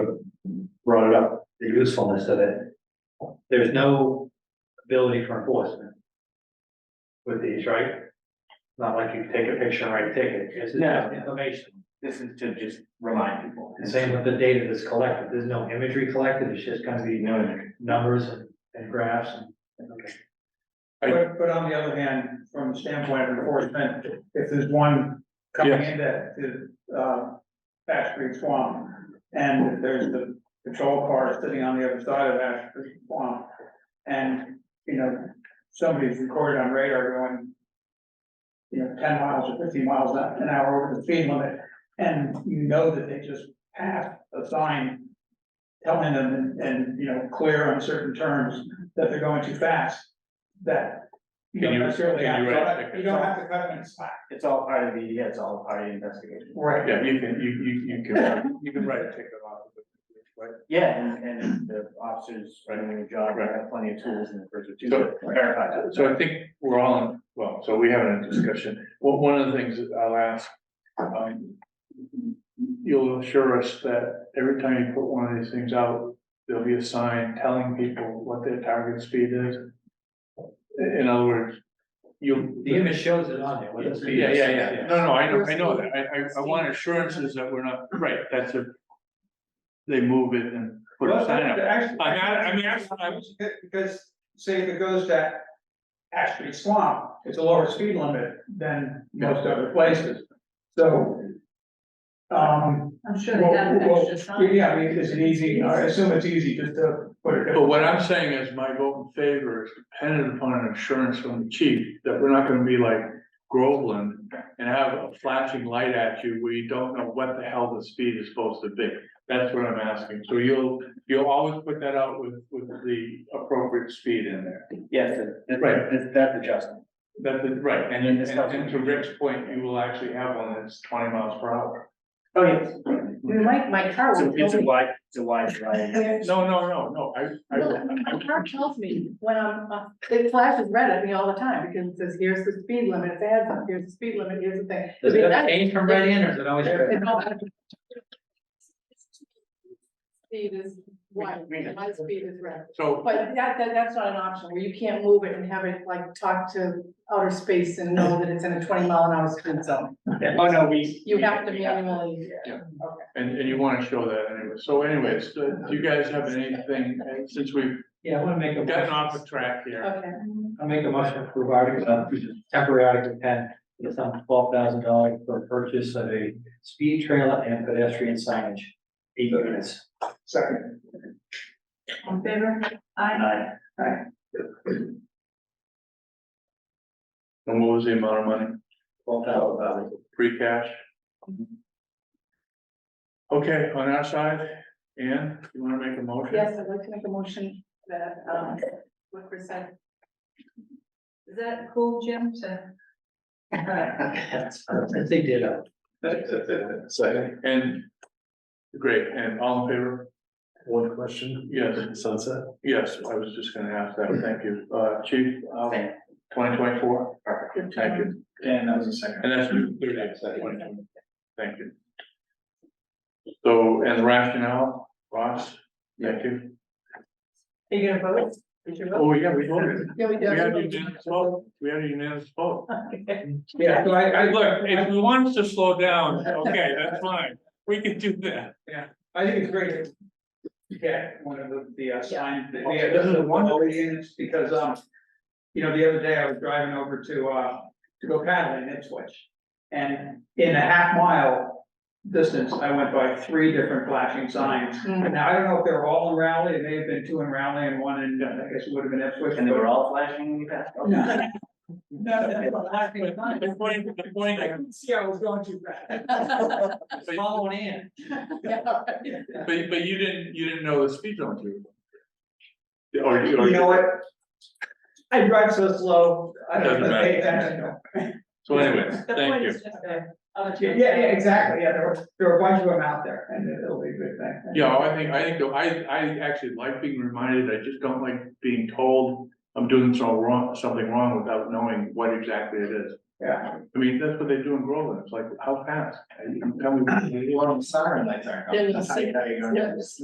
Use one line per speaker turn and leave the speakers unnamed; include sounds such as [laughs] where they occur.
usefulness of it. There's no ability for enforcement. With these, right? It's Not like you take a picture and write a ticket, it's
No.
just information,
This is to just remind people.
the same with the data that's collected, there's no imagery collected, it's just gonna be
No, no,
numbers and- and graphs and. okay.
But, but on the other hand, from the standpoint of enforcement, if there's one coming into, to, uh, Ash Creek Swamp, and if there's the patrol car sitting on the other side of Ash Creek Swamp, and, you know, somebody's recorded on radar going, you know, ten miles or fifteen miles an hour over the speed limit, and you know that they just passed a sign telling them in in you know, clear, uncertain terms, that they're going too fast, that you
Can
don't
you-
necessarily
can
have,
you
you
write
don't-
tickets?
you don't have to cut them in slack.
It's all part of the, yeah, it's all part of the investigation.
Right.
Yeah, you can, you, you, you can, you can write a ticket off. of it, right?
Yeah, and, and the officers running their job, they have plenty of tools in the first or two to verify that.
So I think we're all, in well, so we have a discussion. Well, one of the things that I'll ask, um, you'll assure us that every time you put one of these things out, there'll be a sign telling people what their target speed is. In other words, you.
The image shows it on there, what it's.
Yeah, yeah, yeah. No, no, I know, I know that. I, I, I want assurances that we're not, right, that's a, they move it and put a sign up. I mean, I- I mean, actually, I was-
Because, say if it goes to Ash Creek Swamp, it's a lower speed limit than most other places, so. Um,
I'm sure they
well,
got an
well,
extra sign.
yeah, I mean, is it easy, I assume it's easy just to put it.
But what I'm saying is my vote in favor is dependent upon an assurance from the chief that we're not gonna be like Groveland and have a flashing light at you where you don't know what the hell the speed is supposed to be. That's what I'm asking. So you'll, you'll always put that out with, with the appropriate speed in there.
Yes, that-
Right.
that- that's adjustment.
That's it, right. And then, and and to Rick's point, you will actually have one that's twenty miles per hour.
Oh, yes.
My, my car
So
will
it's
tell
a
me.
wide, it's a wide variety.
No, no, no, no, I,
Well,
I,
My car tells me when I'm, uh, it flashes red at me all the time because it says, here's the speed limit, it's adds up, here's the speed limit, here's the thing. I
Does
mean,
that
that-
change from red in or is it always red?
it's all- Speed is white,
We- we-
my speed is red,
so.
but that, that, that's not an option where you can't move it and have it like talk to outer space and know that it's in a twenty mile an hour speed zone.
Oh, no, we.
You
we-
have to
we have-
manually.
Yeah.
And, and you wanna show that anyway, so anyways, do do you guys have anything, uh, since we've
Yeah, I wanna make a.
gotten off the track here?
Okay.
I make a motion to approve article, uh, temporary article ten, the sum of twelve thousand dollars for purchase of a speed trailer and pedestrian signage. Eight units.
Second,
On favor?
Aye.
And what was the amount of money,
Twelve thousand dollars.
free cash? Okay, on our side, Ann, you wanna make a motion?
Yes, I'd like to make a motion that, um, what Chris said. Is that cool, Jim, to?
If they did, uh,
Second,
And, great, and all in favor?
one question,
Yes,
sunset,
yes, I was just gonna ask that, thank you, uh, chief, um,
Same.
twenty twenty-four? Perfect. Thank you,
And that was the second.
and that's thirty days, that's 2024. thank you. So, and the rationale, Ross, thank you.
Are you gonna vote? Did you vote?
Oh, yeah, we voted.
Yeah, we
We had a
did.
unanimous vote. We had a unanimous vote.
Okay.
yeah, so I, I,
Look,
[laughs]
if we want us to slow down, okay, that's fine. We can do that.
I think it's great. to Get one of the, the uh, signs, the,
Okay.
the, the one over units, because, um. You know, the other day I was driving over to, uh, to go paddling in Ipswich. And in a half mile distance, I went by three different flashing signs.
Hmm.
Now, I don't know if they were all in Raleigh, it may have been two in Raleigh and one in, uh, I guess it would have been Ipswich.
And they were all flashing when you passed.
No. [laughs]
The point, the point,
See, I was going too fast.
but,
following in.
Yeah, all right.
but but you didn't, you didn't know the speed limit. you were- Or Oh, you, or
You know
you,
what? I drive so slow, I
Doesn't
don't
matter.
pay attention.
so anyways,
The
thank
point
you.
is just that, uh,
Yeah, yeah, exactly, yeah, there were, there were a bunch of them out there, and it'll be a good thing.
Yeah, I think, I think, the- I, I actually like being reminded. I just don't like being told I'm doing so wrong, something wrong without knowing what exactly it is.
Yeah,
I mean, that's what they do in Groveland. It's like, how fast? Tell me.
Well, siren lights aren't.
There
coming.
was a
That's how you know you're going.
Yes.